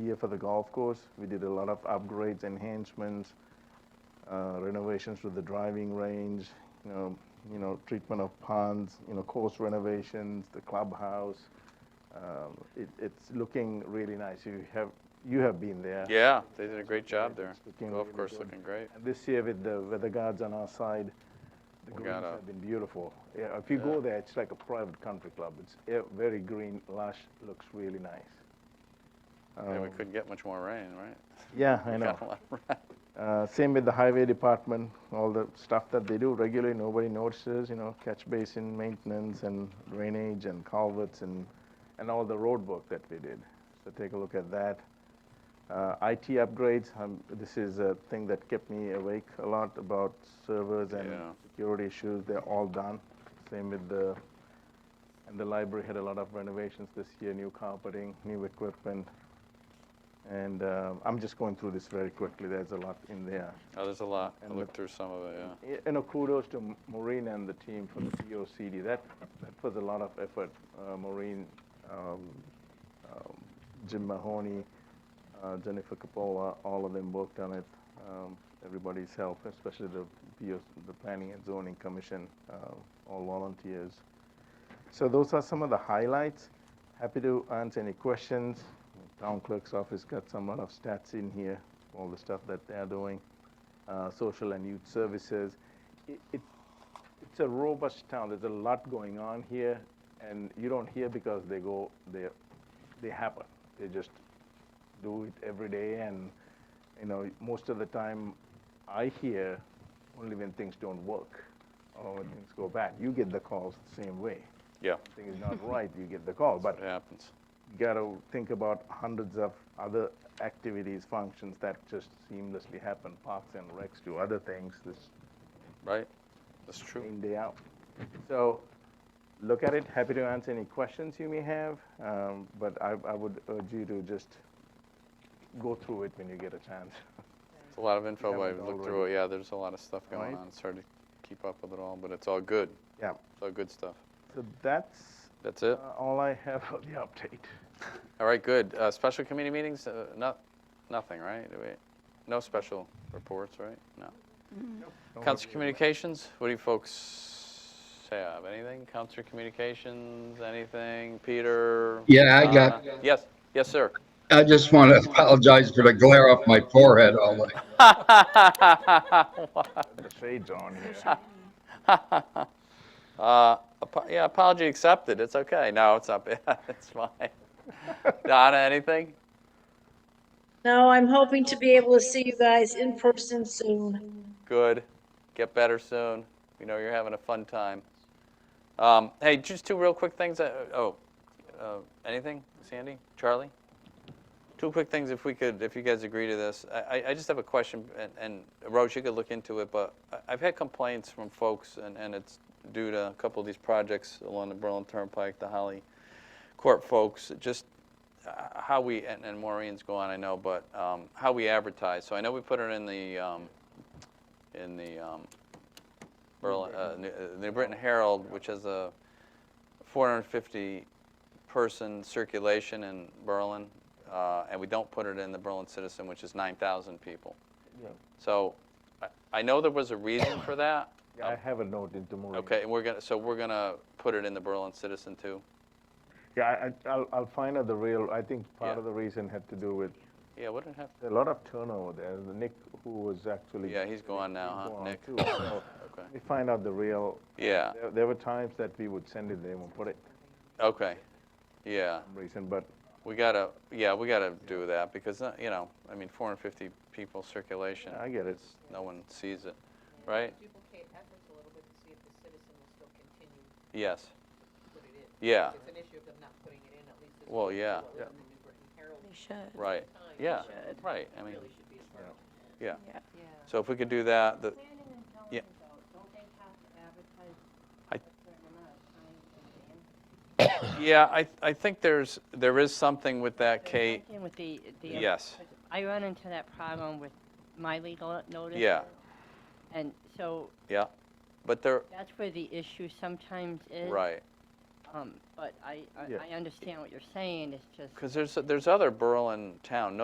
year for the golf course. We did a lot of upgrades, enhancements, uh, renovations to the driving range, you know, you know, treatment of ponds, you know, course renovations, the clubhouse. Um, it, it's looking really nice. You have, you have been there. Yeah, they did a great job there. It's looking Golf really course good. looking great. And this year with the weather guards on our side, the We greens got a- have been beautiful. Yeah, if you go there, it's like a private country club. It's eh, very green, lush, looks really nice. And we Um, couldn't get much more rain, right? Yeah, I We know. got a lot of rain. Uh, Same with the highway department, all the stuff that they do regularly, nobody notices, you know, catch basin maintenance and drainage and culverts and, and all the road work that we did. So take a look at that. Uh, IT upgrades, um, this is a thing that kept me awake a lot about servers and Yeah. security issues, they're all done. Same with the, and the library had a lot of renovations this year, new carpeting, new equipment. And uh, I'm just going through this very quickly, there's a lot in there. Oh, there's a lot. I And looked through some of it, yeah. Y- You know, kudos to M- Maureen and the team for the POCD. That, that was a lot of effort. Uh, Maureen, um, um, Jim Mahoney, uh, Jennifer Capola, all of them worked on it. Um, everybody's help, especially the PO, the Planning and Zoning Commission, uh, all volunteers. So those are some of the highlights. Happy to answer any questions. Town clerk's office got some lot of stats in here, all the stuff that they're doing, uh, social and youth services. It, it, it's a robust town. There's a lot going on here, and you don't hear because they go, they, they happen. They just do it every day, and you know, most of the time, I hear only when things don't work or when things go bad. You get the calls the same way. Yeah, Something is not right, you get the call. But it happens. you got to think about hundreds of other activities, functions that just seamlessly happen, parks and recs to other things, this Right? That's true. in, day out. So look at it. Happy to answer any questions you may have, um, but I, I would urge you to just go through it when you get a chance. It's a lot of info. haven't I looked through it. Yeah, there's a lot of stuff going Right. on. It's hard to keep up with it all, but it's all good. yeah. It's all good stuff. So that's That's uh, it. all I have for the update. All right, good. Uh, special committee meetings? Uh, not, nothing, right? Do we- No special reports, right? No. Council Communications, what do you folks have? Anything? Council Communications, anything? Peter? Yeah, I got- Donna? Yes, yes, sir. I just want to apologize for the glare off my forehead all night. Uh, The shades on here. Uh, apo- Yeah, apology accepted. It's okay. No, it's not bad. It's fine. Donna, anything? No, I'm hoping to be able to see you guys in person soon. Good. Get better soon. We know you're having a fun time. Um, Hey, just two real quick things. uh, Oh, uh, anything? Sandy? Charlie? Two quick things, if we could, if you guys agree to this. I, I- I just have a question, and, and Rose, you could look into it, but I- I've had complaints from folks, and, and it's due to a couple of these projects along the Berlin Turnpike, the Holly Court folks, just uh, how we, and, and Maureen's gone, I know, but um, how we advertise. So I know we put it in the, um, in the um, Berlin, uh, New- uh, New Britain Herald, which has a 450 person circulation in Berlin, uh, and we don't put it in the Berlin Citizen, which is 9,000 people. Yeah. So I, I know there was a reason for that. Yeah, I have a note into Maureen. Okay, and we're gonna, so we're gonna put it in the Berlin Citizen too. Yeah, I- I, I'll, I'll find out the real, I think part Yeah. of the reason had to do with, Yeah, what did it have? a lot of turnover there. The Nick, who was actually. Yeah, he's gone now, huh, gone Nick? too, so Okay. We find out the real, Yeah, there, there were times that we would send it, they won't put it okay, yeah. for some reason, but We gotta, yeah, we gotta do that because, uh, you know, I mean, 450 people circulation. I get it. it's- No one sees it, right? Duplicate efforts a little bit to see if the citizen will still continue to Yes, put it in. yeah, If It's an issue of them not putting it in, at least this. Uh. Well, was yeah. What was in the New Britain Herald They should. right, Times. yeah, Should. right, I mean, Really should be a part of it. yeah. Yeah. So if we could do that, the, Planning and Yeah. zoning though, don't they have to advertise I- Uh, a certain amount of time in advance? yeah, I, I think there's, there is something with that, Kate. Again, With the, the. Yes, I run into that problem with my legal notice. Yeah. And so yeah, but there, that's where the issue sometimes is. right, Um, but I, I- Yeah. I understand what you're saying, it's just. Because there's, there's other Berlin town,